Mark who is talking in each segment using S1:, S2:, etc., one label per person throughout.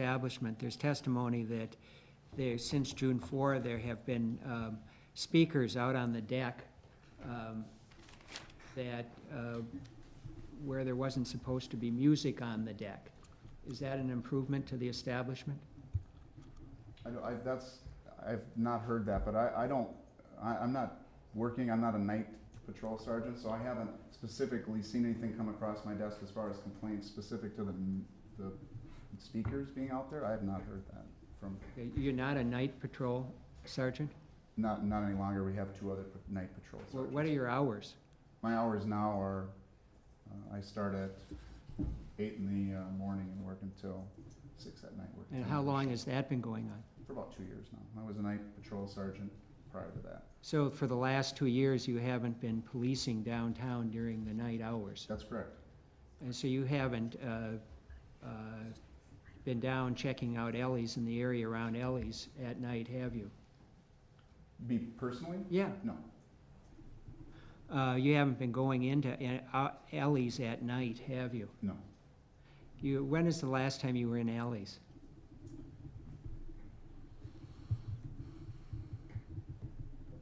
S1: establishment. There's testimony that there, since June 4, there have been um, speakers out on the deck um, that, uh, where there wasn't supposed to be music on the deck. Is that an improvement to the establishment?
S2: I, don't- I, that's, I've not heard that, but I, I don't, I, I'm not working, I'm not a night patrol sergeant, so I haven't specifically seen anything come across my desk as far as complaints specific to the, m- the speakers being out there. I have not heard that from,
S1: Uh, You're not a night patrol sergeant?
S2: not, not any longer. We have two other pa- night patrol
S1: Wha- What are
S2: sergeants.
S1: your hours?
S2: My hours now are, uh, I start at eight in the, uh, morning and work until six at night. work
S1: And
S2: until
S1: how
S2: midnight.
S1: long has that been going on?
S2: For about two years now. I was a night patrol sergeant prior to that.
S1: So for the last two years, you haven't been policing downtown during the night hours?
S2: That's correct.
S1: And so you haven't uh, uh, been down checking out Ellie's in the area around Ellie's at night, have you?
S2: Be personally?
S1: Yeah,
S2: No,
S1: uh, you haven't been going into a- uh, Ellie's at night, have you?
S2: no.
S1: You, when is the last time you were in Ellie's?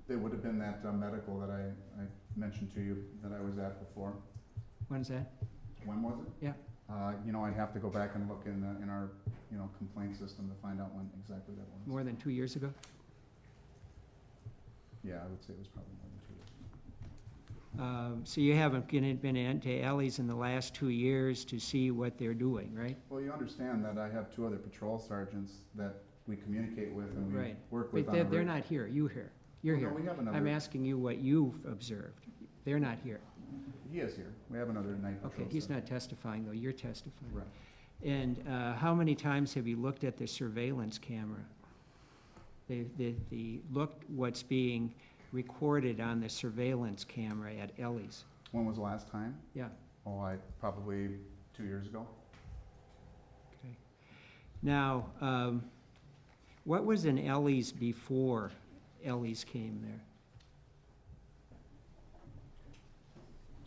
S2: It would have been that uh, medical that I, I mentioned to you that I was at before.
S1: When's that?
S2: When was it?
S1: Yeah.
S2: Uh, you know, I'd have to go back and look in, the- in our, you know, complaint system to find out when exactly that was.
S1: More than two years ago?
S2: Yeah, I would say it was probably more than two years.
S1: Um, So you haven't been been into Ellie's in the last two years to see what they're doing, right?
S2: Well, you understand that I have two other patrol sergeants that we communicate with and we
S1: Right.
S2: work with
S1: But
S2: on a.
S1: they're, they're
S2: reg-
S1: not here, you here, you're
S2: Well,
S1: here.
S2: No, we have
S1: I'm
S2: another,
S1: asking you what you've observed. They're not here.
S2: he is here. We have another night patrol
S1: Okay, he's
S2: sergeant.
S1: not testifying, though, you're testifying.
S2: Right.
S1: And uh, how many times have you looked at the surveillance camera? The, the, the, looked what's being recorded on the surveillance camera at Ellie's?
S2: When was the last time?
S1: Yeah.
S2: Oh, I, probably two years ago.
S1: Okay. Now, um, what was in Ellie's before Ellie's came there?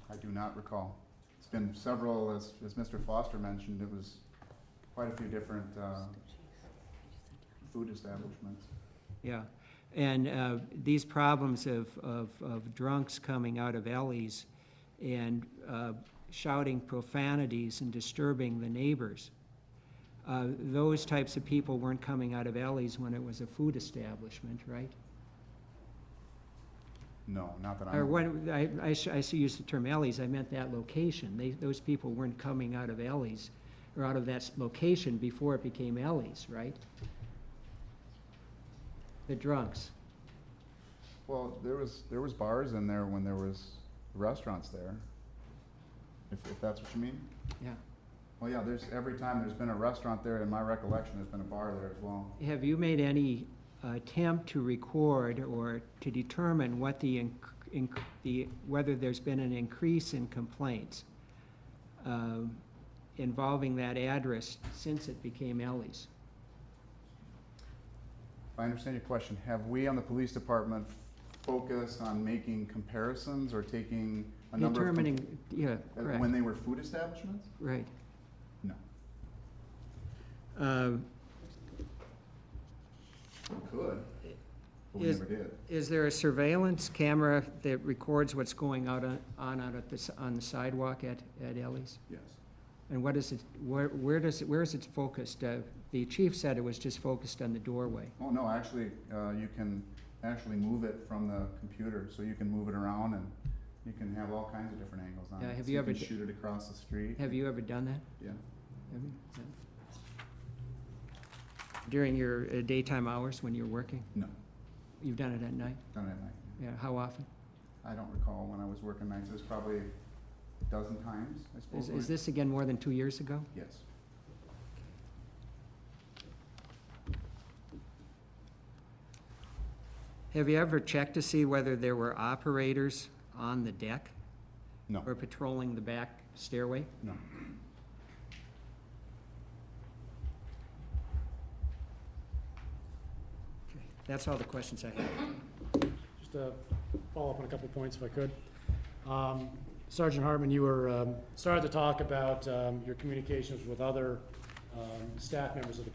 S2: I do not recall. It's been several, as, as Mr. Foster mentioned, it was quite a few different, uh, food establishments.
S1: Yeah, and uh, these problems of, of, of drunks coming out of alleys and uh, shouting profanities and disturbing the neighbors, uh, those types of people weren't coming out of alleys when it was a food establishment, right?
S2: No, not that
S1: Or
S2: I'm,
S1: when, I, I sh- I s- used the term alleys, I meant that location. They, those people weren't coming out of alleys or out of that s- location before it became alleys, right? The drunks.
S2: well, there was, there was bars in there when there was restaurants there. If, if that's what you mean?
S1: Yeah.
S2: Well, yeah, there's, every time there's been a restaurant there, in my recollection, there's been a bar there as well.
S1: Have you made any uh, attempt to record or to determine what the, inc- inc- the, whether there's been an increase in complaints um, involving that address since it became Ellie's?
S2: If I understand your question, have we on the police department focused on making comparisons or taking a number of? com-
S1: Determining, yeah,
S2: uh,
S1: correct,
S2: When they were food establishments?
S1: right.
S2: No.
S1: Um,
S2: Could, but we
S1: Is-
S2: never did.
S1: Is there a surveillance camera that records what's going out on, on out at the, s- on the sidewalk at, at Ellie's?
S2: Yes.
S1: And what is it, where, where does, it- where is it focused? Uh, The chief said it was just focused on the doorway.
S2: Oh, no, actually, uh, you can actually move it from the computer, so you can move it around and you can have all kinds of different angles on it.
S1: Yeah, have
S2: So
S1: you ever
S2: can
S1: d-
S2: shoot it across the street.
S1: Have you ever done that?
S2: Yeah,
S1: Have you? No. During your uh, daytime hours when you're working?
S2: no,
S1: You've done it at night?
S2: not at night.
S1: Yeah, how often?
S2: I don't recall when I was working nights. It was probably a dozen times, I suppose.
S1: Is, is this again more than two years ago?
S2: Yes.
S1: Have you ever checked to see whether there were operators on the deck
S2: No,
S1: or patrolling the back stairway?
S2: no.
S1: Okay, That's all the questions I have.
S3: Just to follow up on a couple points if I could. Um, Sergeant Hartman, you were, um, started to talk about um, your communications with other um, staff members of the